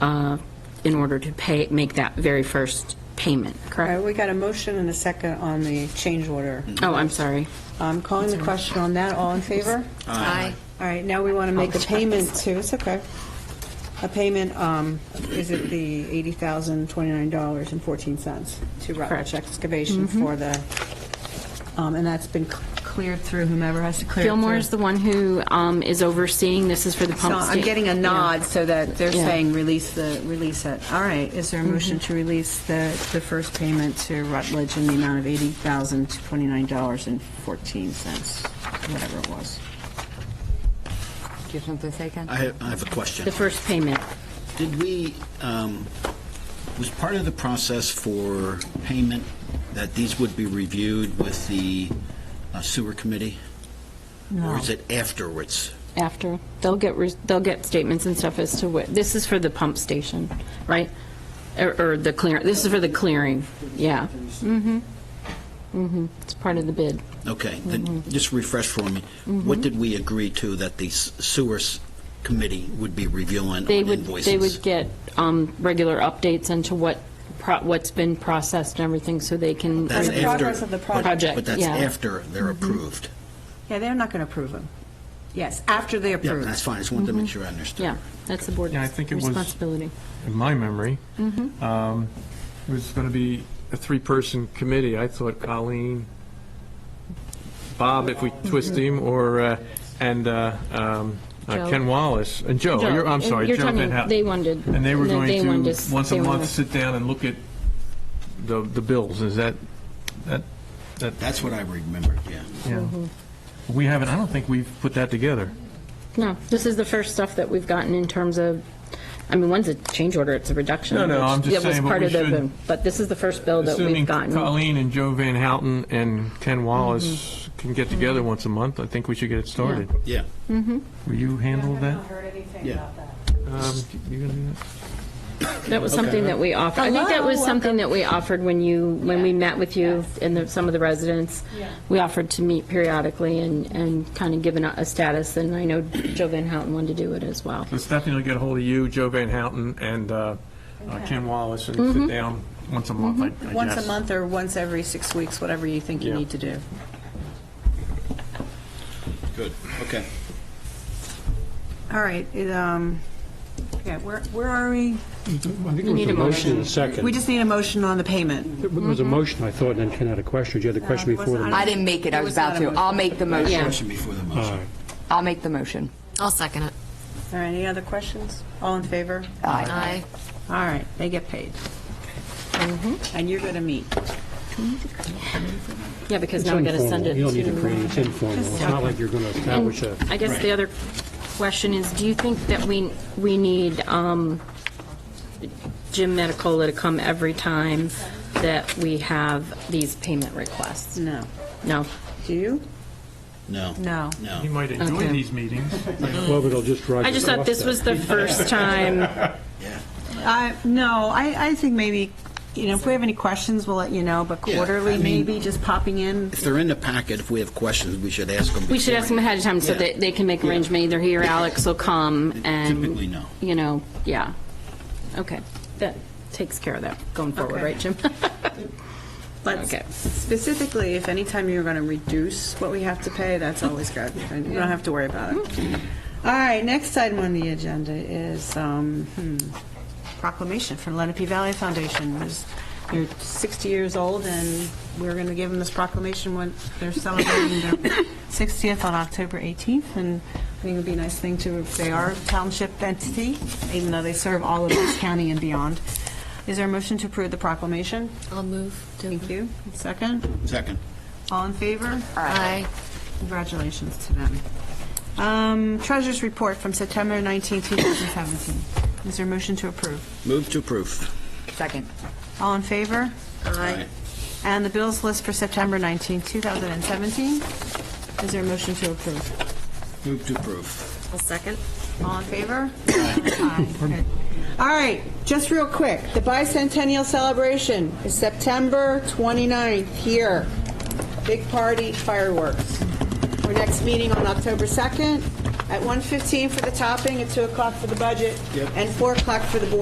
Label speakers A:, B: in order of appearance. A: uh, in order to pay, make that very first payment,
B: All right,
A: correct?
B: we got a motion and a second on the change order.
A: Oh, I'm sorry.
B: I'm calling the question on that. All in favor?
C: Aye.
B: All right, now we want to make a payment to, it's okay. A payment, um, is it the $80,029.14 to Rutledge
A: Correct.
B: Excavation for the, um, and that's been cl- cleared through whomever has to clear it
A: Gilmore
B: through.
A: is the one who um, is overseeing, this is for the
B: So
A: pump
B: I'm
A: sta-
B: getting a
A: yeah.
B: nod so that they're
A: Yeah.
B: saying release the, release it. All right, is there a motion to release the, the first payment to Rutledge in the amount of $80,029.14, whatever it was?
C: Do you have something to say, Ken?
D: I have, I have a question.
A: The first payment.
D: Did we, um, was part of the process for payment that these would be reviewed with the uh, sewer committee? Or is it afterwards?
A: After, they'll get, res- they'll get statements and stuff as to what, this is for the pump station, right? Er, Or or the clear, this is for the clearing, yeah. Mm-hmm, mm-hmm, it's part of the bid.
D: Okay, then
A: Mm-hmm.
D: just refresh for me. What did we agree to that the s- sewer s- committee would be reviewing on
A: They would,
D: invoices?
A: they would get um, regular updates into what, pro- what's been processed and everything, so they can.
D: That's
B: the
D: after-
B: progress of the
D: but-
B: project.
D: But that's
A: Yeah. Mm-hmm.
D: after they're approved.
B: Yeah, they're not going to approve them. Yes, after they
D: Yeah,
B: approve.
D: that's fine, I just wanted to make sure I understood.
A: Mm-hmm. Yeah, that's the board's
E: Yeah, I think it was-
A: responsibility.
E: in my memory,
A: Mm-hmm.
E: um, it was going to be a three-person committee. I thought Colleen, Bob, if we
A: Mm-hmm.
E: twist him, or, uh, and uh, um, uh,
A: Joe.
E: Ken Wallace, and Joe,
A: Joe,
E: Oh, you're- I'm sorry,
A: you're
E: Joe
A: talking-
E: Van Houten.
A: they wanted-
E: And they were
A: no, they
E: going
A: wanted
E: to,
A: us-
E: once a
A: they wanted
E: month,
A: us-
E: sit down and look at the the bills. Is that, that, that,
D: That's what I remembered, yeah.
E: yeah.
A: Mm-hmm.
E: We haven't, I don't think we've put that together.
A: No, this is the first stuff that we've gotten in terms of, I mean, one's a change order, it's a reduction.
E: No, no,
A: which-
E: I'm just
A: that was
E: saying, but
A: part
E: we
A: of the-
E: should-
A: But this is the first bill that
E: Assuming
A: we've gotten.
E: Colleen and Joe Van Houten and Ken Wallace
A: Mm-hmm.
E: can get together once a month, I think we should get it started.
D: Yeah,
E: Will you handle that?
D: yeah.
E: Um, you gonna do that?
A: That was something that we offered, I think that was something that we offered when you, when we met with you and the- some of the residents. We offered to meet periodically and, and kind of given a a status, and I know Joe Van Houten wanted to do it as well.
E: So Stephanie will get a hold of you, Joe Van Houten, and uh, uh, Ken Wallace, and sit down once a month, I I
B: Mm-hmm. Once a
E: guess.
B: month or once every six weeks, whatever you think you
E: Yeah.
B: need to do.
D: Good, okay.
B: All right, it, um, yeah, where, where are we?
F: I think it was
A: need
F: a
A: a
F: motion and a
B: We
F: second.
B: just need a motion on the payment.
F: It was a
A: Mm-hmm.
F: motion, I thought, and then Ken had a question. Did you have the question
B: it wasn't-
F: before the
C: I didn't make it, I
B: It
C: was
B: was not
C: about
B: a
C: to.
B: motion.
C: I'll make the
A: Yeah.
C: motion.
D: Question before the
F: All
D: motion.
F: right.
C: I'll make the motion.
G: I'll second it.
B: All right, any other questions? All in favor?
G: Aye.
B: All right, they get paid. And you're going to meet.
A: Yeah, because
F: It's
A: now we got to
F: informal.
A: send it
F: You don't need to
A: to.
F: create, it's informal. It's not like you're going to establish a,
A: I guess the other question is, do you think that we, we need um, Jim Medicola to come every time that we have these payment requests?
B: No.
A: No?
B: Do you?
D: No.
B: No.
D: No.
E: He might enjoy these meetings.
F: well, it'll just drive.
A: I just thought this was the first time
B: I, Uh, no, I, I think maybe, you know, if we have any questions, we'll let you know, but
D: Yeah, I
B: quarterly,
D: mean-
B: maybe, just popping in.
D: If they're in the packet, if we have questions, we should ask them.
A: We should ask them ahead of time so
D: Yeah.
A: that they can make arrangement, either he or Alex will come and.
D: Typically, no.
A: You know, yeah. Okay, that takes care of that going forward,
B: Okay.
A: right, Jim?
B: But
A: Okay.
B: specifically, if anytime you're going to reduce what we have to pay, that's always good. And you don't have to worry about it. All right, next item on the agenda is um, hmm, proclamation for Lenape Valley Foundation. There's- They're 60 years old, and we're going to give them this proclamation when they're celebrating their 60th on October 18th. And I think it would be a nice thing to, they are a township entity, even though they serve all of this county and beyond. Is there a motion to approve the proclamation?
G: I'll move to.
B: Thank you. Second,
D: Second.
B: all in favor?
G: Aye.
B: Congratulations to them. Um, Treasurers' report from September 19, 2017. Is there a motion to approve?
D: Move to approve.
C: Second.
B: All in favor?
D: Aye.
B: And the bills list for September 19, 2017. Is there a motion to approve?
D: Move to approve.
G: I'll second.
B: All in favor? Aye. Good. All right, just real quick, the bicentennial celebration is September 29th here. Big party fireworks. Our next meeting on October 2nd at 1:15 for the topping, at 2 o'clock for the budget, and 4 o'clock for the board